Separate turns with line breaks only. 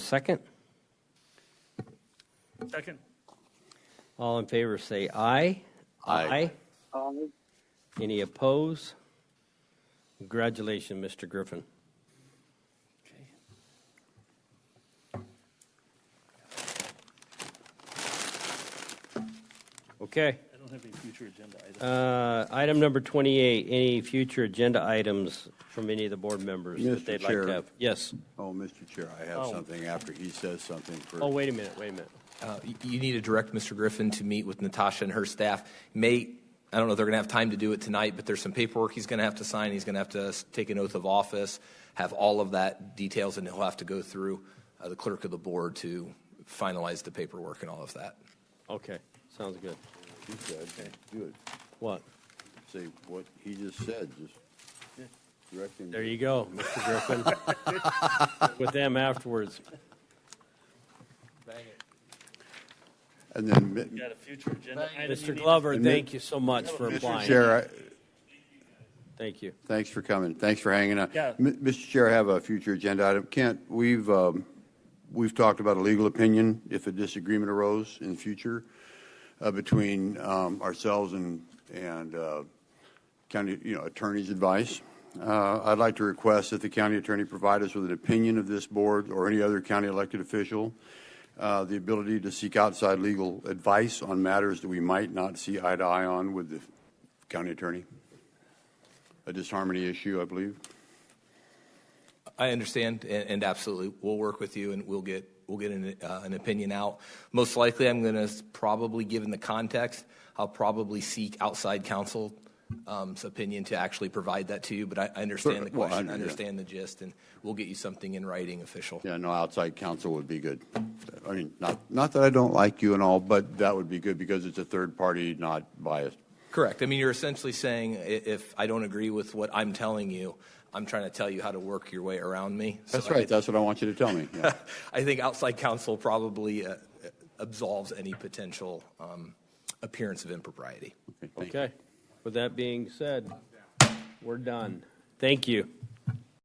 second?
Second.
All in favor, say aye.
Aye.
Any opposed? Congratulations, Mr. Griffin. Okay.
I don't have any future agenda items.
Uh, Item number 28, any future agenda items from any of the board members that
Mr.
they'd like
Chair.
to have? Yes.
Oh, Mr. Chair, I have
Oh.
something after he says something for.
Oh, wait a minute, wait a minute.
Uh, y- You need to direct Mr. Griffin to meet with Natasha and her staff. May, I don't know if they're going to have time to do it tonight, but there's some paperwork he's going to have to sign. He's going to have to s- take an oath of office, have all of that details, and he'll have to go through uh, the clerk of the board to finalize the paperwork and all of that.
Okay, sounds good.
He said, Good.
What?
Say what he just said, just direct him.
There you go, Mr. Griffin. With them afterwards.
And then, mi-
You got a future agenda item? you
Mr.
need?
Glover,
And
thank
then-
you so much for
Mr.
applying.
Chair, I-
Thank you.
Thanks for coming. Thanks for hanging out.
Yeah.
M- Mr. Chair, I have a future agenda item. Kent, we've, um, we've talked about a legal opinion if a disagreement arose in the future uh, between um, ourselves and, and uh, county, you know, attorney's advice. Uh, I'd like to request that the county attorney provide us with an opinion of this board or any other county elected official, uh, the ability to seek outside legal advice on matters that we might not see eye to eye on with the county attorney a disharmony issue, I believe.
I understand, and, and absolutely, we'll work with you, and we'll get we'll get an, uh, an opinion out. Most likely, I'm going to probably, given the context, I'll probably seek outside counsel's um, opinion to actually provide that to you. But I, I understand the
Sure, well, I
question, I
under- yeah.
understand the gist, and we'll get you something in writing official.
Yeah, no, outside counsel would be good. I mean, not, not that I don't like you and all, but that would be good because it's a third party, not biased.
Correct. I mean, you're essentially saying i- if I don't agree with what I'm telling you, I'm trying to tell you how to work your way around me. So
That's
I
right,
think-
that's what I want you to tell me. yeah.
I think outside counsel probably uh, absolves any potential um, appearance of impropriety.
Okay, thank you.
Okay. With that being said, we're done. Thank you.